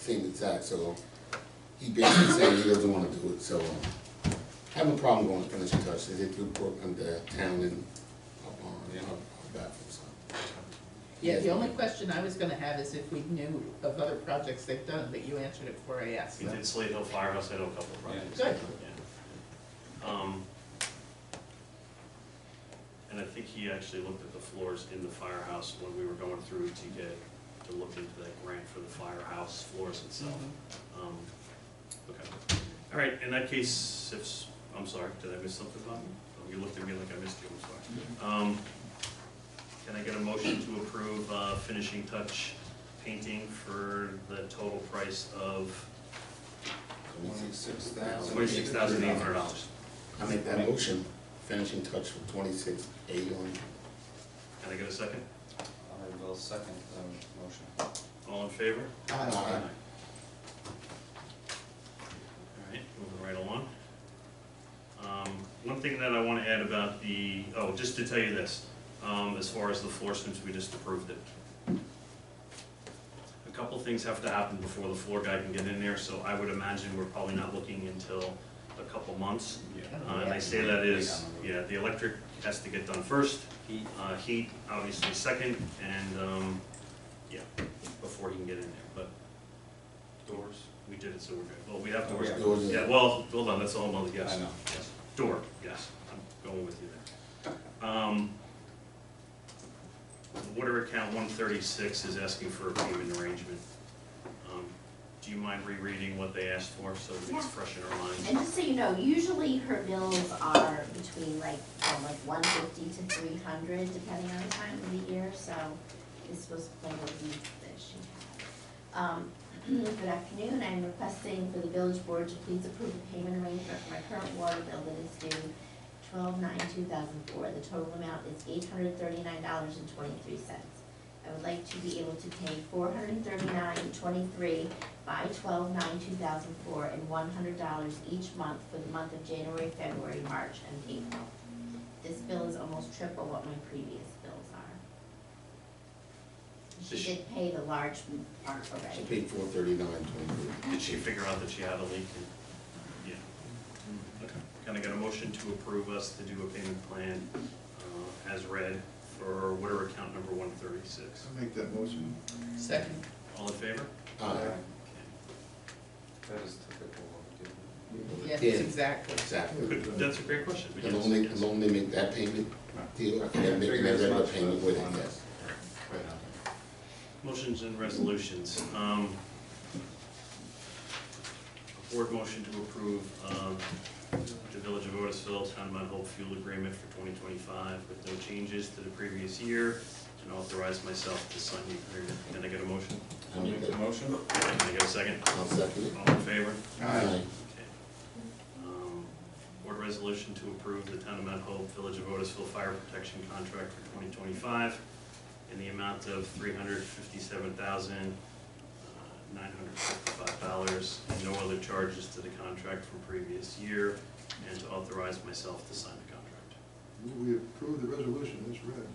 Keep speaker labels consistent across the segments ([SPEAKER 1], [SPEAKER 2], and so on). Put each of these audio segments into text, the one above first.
[SPEAKER 1] same exact, so he basically said he doesn't wanna do it, so um, I have a problem going to finish touch, they do work under town and up on, up up back from some.
[SPEAKER 2] Yeah, the only question I was gonna have is if we knew of other projects they've done, but you answered it before I asked.
[SPEAKER 3] We did Slate Hill Firehouse, I know a couple of projects.
[SPEAKER 2] Good.
[SPEAKER 3] Yeah. Um, And I think he actually looked at the floors in the firehouse when we were going through to get, to look into that grant for the firehouse floors itself. Um, Okay. All right, in that case, if, s- I'm sorry, did I miss something, Bob? Oh, You looked at me like I missed you, I'm sorry. Um, Can I get a motion to approve uh, finishing touch painting for the total price of
[SPEAKER 4] Twenty-six thousand.
[SPEAKER 3] twenty-six thousand eight hundred dollars?
[SPEAKER 1] I make that motion, finishing touch for twenty-six, eight on,
[SPEAKER 3] Can I get a second?
[SPEAKER 4] I will second the motion.
[SPEAKER 3] All in favor?
[SPEAKER 1] Aye.
[SPEAKER 3] All right, moving right along. Um, One thing that I want to add about the, oh, just to tell you this, um, as far as the floor, since we just approved it. A couple things have to happen before the floor guy can get in there, so I would imagine we're probably not looking until a couple months. Uh, And I say that is, yeah, the electric has to get done first,
[SPEAKER 4] Heat,
[SPEAKER 3] uh, heat, obviously second, and, um, yeah, before he can get in there, but doors, we did it, so we're good. Well, we have doors.
[SPEAKER 4] Oh, Yeah.
[SPEAKER 1] Doors.
[SPEAKER 3] Yeah, well, hold on, that's all another guess.
[SPEAKER 4] I know.
[SPEAKER 3] Yes. Door, yes, I'm going with you there. Um, water account one thirty-six is asking for a payment arrangement. Um, Do you mind rereading what they asked for, so it's fresh in our minds?
[SPEAKER 5] And just so you know, usually her bills are between like, from like one fifty to three hundred, depending on the time of the year, so this was one of the weeks that she had. Um, good afternoon, I'm requesting for the village board to please approve the payment arrangement for my current water bill that is due twelve nine two thousand four. The total amount is eight hundred thirty-nine dollars and twenty-three cents. I would like to be able to pay four hundred thirty-nine twenty-three by twelve nine two thousand four and one hundred dollars each month for the month of January, February, March, and April. This bill is almost triple what my previous bills are.
[SPEAKER 3] Does
[SPEAKER 5] She
[SPEAKER 3] she-
[SPEAKER 5] did pay the large part
[SPEAKER 1] she
[SPEAKER 5] already.
[SPEAKER 1] paid four thirty-nine, twenty-three.
[SPEAKER 3] Did she figure out that she had a leak? Yeah. Okay. Can I get a motion to approve us to do a payment plan uh, as read for water account number one thirty-six?
[SPEAKER 6] I'll make that motion.
[SPEAKER 2] Second,
[SPEAKER 3] All in favor?
[SPEAKER 1] Aye.
[SPEAKER 4] that is typical what we do.
[SPEAKER 2] yes,
[SPEAKER 1] Yeah.
[SPEAKER 2] exactly.
[SPEAKER 1] Exactly.
[SPEAKER 3] Good. That's a great question. but
[SPEAKER 1] As
[SPEAKER 3] yes,
[SPEAKER 1] long they,
[SPEAKER 3] yes.
[SPEAKER 1] as long they make that payment, deal, and make that regular payment with it, yes.
[SPEAKER 3] Motions and resolutions. Um, a Board motion to approve um, the Village of Otisville Town of Mount Hope fuel agreement for 2025 with no changes to the previous year and authorize myself to sign the agreement. Can I get a motion?
[SPEAKER 1] I make that,
[SPEAKER 4] motion?
[SPEAKER 3] Can I get a second?
[SPEAKER 1] I'll second it.
[SPEAKER 3] All in favor?
[SPEAKER 1] Aye.
[SPEAKER 3] Okay. Um, Board resolution to approve the town of Mount Hope, Village of Otisville Fire Protection Contract for twenty twenty-five in the amount of three hundred fifty-seven thousand, uh, nine hundred fifty-five dollars, and no other charges to the contract from previous year, and to authorize myself to sign the contract.
[SPEAKER 6] We approve the resolution, it's read.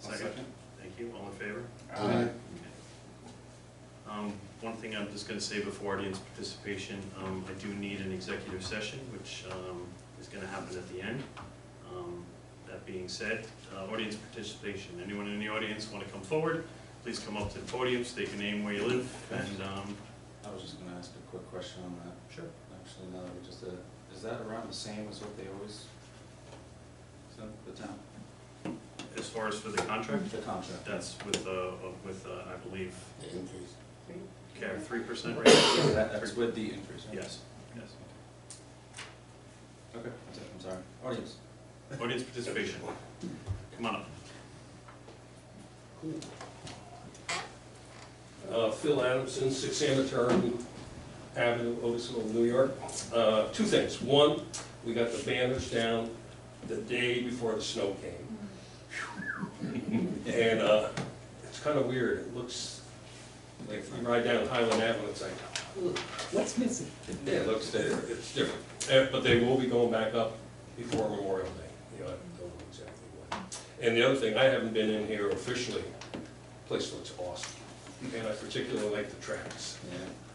[SPEAKER 3] Second? Thank you, all in favor?
[SPEAKER 1] Aye.
[SPEAKER 3] Um, One thing I'm just gonna say before audience participation, um, I do need an executive session, which um, is gonna happen at the end. Um, That being said, uh, audience participation, anyone in the audience wanna come forward, please come up to the podium, state your name, where you live, and, um,
[SPEAKER 4] I was just gonna ask a quick question on that,
[SPEAKER 3] sure.
[SPEAKER 4] actually, now that we just did it. Is that around the same as what they always send the town?
[SPEAKER 3] As far as for the contract,
[SPEAKER 4] The contract?
[SPEAKER 3] that's with, uh, with, uh, I believe,
[SPEAKER 1] The increase.
[SPEAKER 3] care, three percent rate?
[SPEAKER 4] That- That's with the increase, right?
[SPEAKER 3] Yes, yes.
[SPEAKER 4] Okay, that's it, I'm sorry. Audience?
[SPEAKER 3] Audience participation, come on up.
[SPEAKER 7] Uh, Phil Adamson, Six Sanitarium Avenue, Otisville, New York. Uh, Two things. One, we got the banners down the day before the snow came. And uh, it's kind of weird. It looks, like if you ride down Highland Avenue, it's like,
[SPEAKER 2] What's missing?
[SPEAKER 7] yeah, it looks different. It's different. Uh, But they will be going back up before Memorial Day. You know, I don't know exactly when. And the other thing, I haven't been in here officially. Place looks awesome. and I particularly like the tracks.
[SPEAKER 4] Yeah.